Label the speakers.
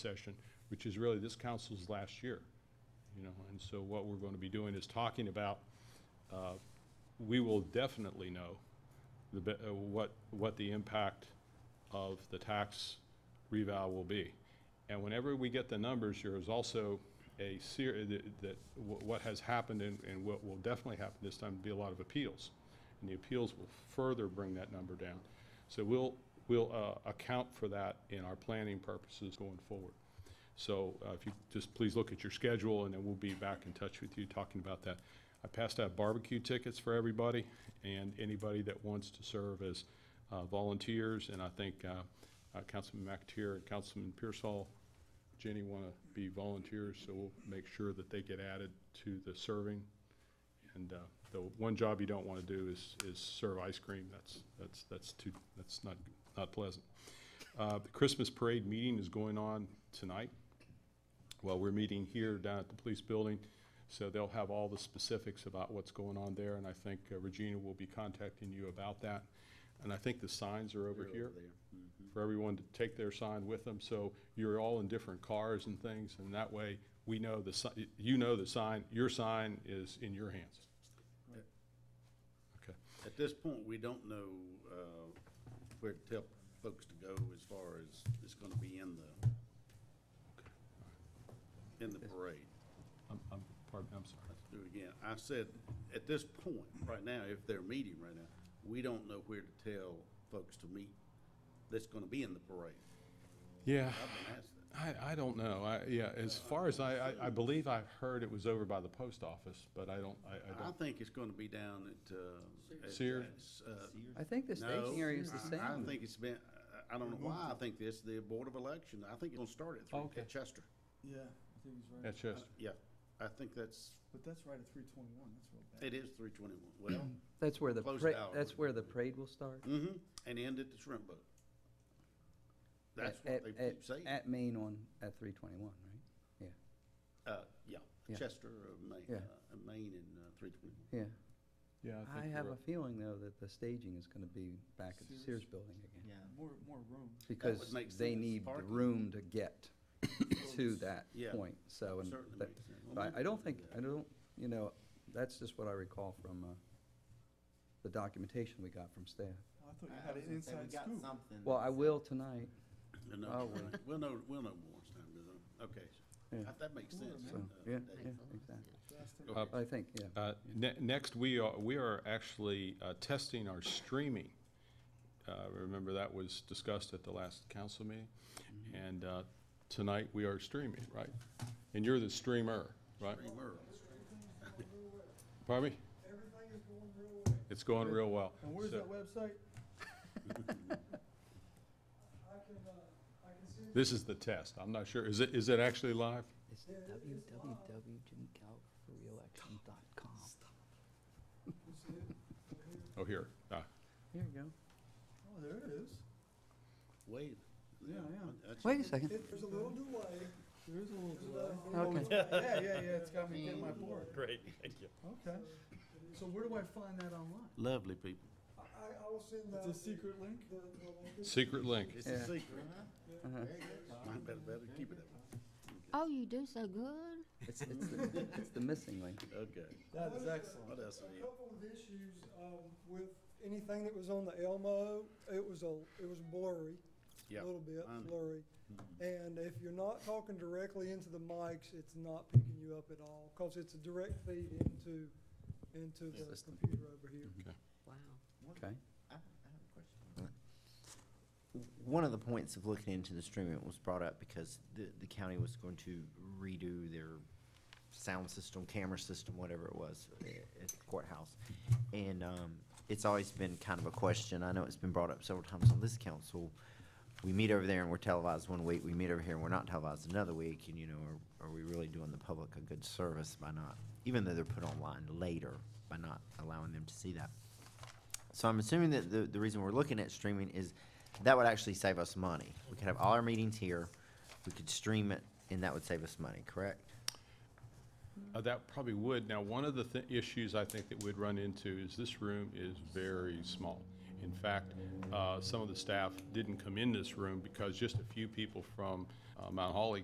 Speaker 1: session, which is really this council's last year, you know, and so what we're going to be doing is talking about, uh, we will definitely know the, be- uh, what, what the impact of the tax revow will be. And whenever we get the numbers, there is also a ser, that- that, wh- what has happened and, and what will definitely happen this time, be a lot of appeals. And the appeals will further bring that number down. So we'll, we'll, uh, account for that in our planning purposes going forward. So, uh, if you, just please look at your schedule and then we'll be back in touch with you talking about that. I passed out barbecue tickets for everybody and anybody that wants to serve as, uh, volunteers. And I think, uh, uh, Councilman McTeer and Councilman Pearsall, Jenny want to be volunteers, so we'll make sure that they get added to the serving. And uh, the one job you don't want to do is, is serve ice cream. That's, that's, that's too, that's not, not pleasant. Uh, The Christmas parade meeting is going on tonight. Well, we're meeting here down at the police building, so they'll have all the specifics about what's going on there. And I think uh, Regina will be contacting you about that. And I think the signs are over here for everyone to take their sign with them, so you're all in different cars and things, and that way, we know the, si- you know the sign, your sign is in your hands. Okay,
Speaker 2: At this point, we don't know uh, where to tell folks to go as far as it's going to be in the, in the parade.
Speaker 1: I'm, I'm, pardon, me, I'm sorry.
Speaker 2: Let's do it again. I said, at this point, right now, if they're meeting right now, we don't know where to tell folks to meet that's going to be in the parade.
Speaker 1: Yeah,
Speaker 2: I've been asked that.
Speaker 1: I, I don't know, I, yeah, as far as I, I, I believe I've heard it was over by the post office, but I don't, I, I
Speaker 2: I
Speaker 1: don't,
Speaker 2: think it's going to be down at, uh. at-
Speaker 1: Sears.
Speaker 2: uh,
Speaker 3: I think the staging
Speaker 2: no,
Speaker 3: area is the
Speaker 2: I- I
Speaker 3: same.
Speaker 2: think it's been, I I don't know why I think this, the Board of Election, I think it'll start at
Speaker 1: Okay.
Speaker 2: three, at Chester.
Speaker 4: Yeah, I think he's right.
Speaker 1: that's just,
Speaker 2: Yeah, I think that's,
Speaker 4: But that's right at three twenty-one, that's real bad.
Speaker 2: it is three twenty-one, well,
Speaker 3: That's where the,
Speaker 2: Close
Speaker 3: pra-
Speaker 2: it out.
Speaker 3: that's where the parade will start.
Speaker 2: mhm, and end at the shrimp boat. That's
Speaker 3: At-
Speaker 2: what they
Speaker 3: at-
Speaker 2: keep saying,
Speaker 3: At Main on, at three twenty-one, right?
Speaker 2: uh, yeah,
Speaker 3: Yeah.
Speaker 2: Chester, uh, Maine,
Speaker 3: Yeah.
Speaker 2: uh, Maine and, uh, three twenty-one.
Speaker 3: Yeah.
Speaker 1: yeah, I
Speaker 3: I
Speaker 1: think
Speaker 3: have
Speaker 1: you're
Speaker 3: a
Speaker 1: right.
Speaker 3: feeling, though, that the staging is gonna be back at the
Speaker 4: Sears?
Speaker 3: Sears Building again.
Speaker 5: Yeah.
Speaker 4: More, more room.
Speaker 3: Because
Speaker 2: make
Speaker 3: they
Speaker 2: sense.
Speaker 3: need the
Speaker 2: Parking.
Speaker 3: room to get to that
Speaker 2: Yeah,
Speaker 3: point, so. Oh, and
Speaker 2: certainly
Speaker 3: that-
Speaker 2: makes sense.
Speaker 3: but I, I don't think, I don't, you know, that's just what I recall from, uh, the documentation we got from staff.
Speaker 4: I thought you
Speaker 5: I
Speaker 4: had
Speaker 5: was
Speaker 4: an
Speaker 5: gonna say,
Speaker 4: inside
Speaker 5: we got
Speaker 4: scoop.
Speaker 5: something.
Speaker 3: Well, I will tonight,
Speaker 2: And, uh,
Speaker 3: Oh, well.
Speaker 2: We'll know, we'll know more as time goes on, okay,
Speaker 3: Yeah.
Speaker 2: that- that makes sense.
Speaker 3: so,
Speaker 2: uh,
Speaker 3: yeah,
Speaker 2: Dave.
Speaker 3: yeah, exactly.
Speaker 4: Last time.
Speaker 2: Go
Speaker 1: Uh,
Speaker 2: ahead.
Speaker 3: I think, yeah.
Speaker 1: Uh, ne- Next, we are, we are actually uh, testing our streaming. Uh, Remember, that was discussed at the last council meeting?
Speaker 6: Mm-hmm.
Speaker 1: And uh, tonight, we are streaming, right? And you're the streamer, right?
Speaker 2: Hey, Merle.
Speaker 1: Pardon me?
Speaker 4: Everything is going real way.
Speaker 1: It's going real well.
Speaker 4: And where's
Speaker 1: So-
Speaker 4: that website?
Speaker 7: I can, uh, I can see
Speaker 1: This is the test. I'm not sure. Is it, is it actually live?
Speaker 5: It's
Speaker 3: www.jimmygalforreelection.com.
Speaker 1: Oh, here. Ah,
Speaker 3: Here you go.
Speaker 4: Oh, there it is.
Speaker 2: Wait.
Speaker 4: Yeah, yeah.
Speaker 2: That's-
Speaker 3: Wait a second.
Speaker 7: it, there's a little delay.
Speaker 4: There is a little delay.
Speaker 3: Okay.
Speaker 4: Yeah, yeah, yeah, it's got me getting my board.
Speaker 6: Great, thank you.
Speaker 4: Okay. So where do I find that online?
Speaker 2: Lovely people.
Speaker 7: I, I will send the.
Speaker 4: It's a secret link?
Speaker 7: The, the link.
Speaker 1: Secret link.
Speaker 2: It's
Speaker 3: Yeah.
Speaker 2: a secret.
Speaker 3: Uh-huh.
Speaker 2: I better, better keep it that way.
Speaker 8: Oh, you do so good.
Speaker 3: It's, it's, the, it's the missing link.
Speaker 2: Okay.
Speaker 4: That is excellent.
Speaker 2: What else have
Speaker 7: A
Speaker 2: you?
Speaker 7: couple of issues, um, with anything that was on the Elmo, it was a, it was blurry, a
Speaker 2: Yeah.
Speaker 7: little bit
Speaker 2: I know.
Speaker 7: blurry. And if you're not talking directly into the mics, it's not picking you up at all, cause it's a direct feed into, into the
Speaker 3: System.
Speaker 7: computer over here.
Speaker 8: Wow.
Speaker 3: Okay.
Speaker 5: I have a question. One of the points of looking into the streaming was brought up because the, the county was going to redo their sound system, camera system, whatever it was, a- at the courthouse. And, um, it's always been kind of a question, I know it's been brought up several times on this council. We meet over there and we're televised one week, we meet over here and we're not televised another week, and you know, are, are we really doing the public a good service by not, even though they're put online later, by not allowing them to see that? So I'm assuming that the, the reason we're looking at streaming is that would actually save us money. We could have all our meetings here, we could stream it, and that would save us money, correct?
Speaker 1: Uh, That probably would. Now, one of the thi- issues I think that we'd run into is this room is very small. In fact, uh, some of the staff didn't come in this room because just a few people from uh, Mount Holly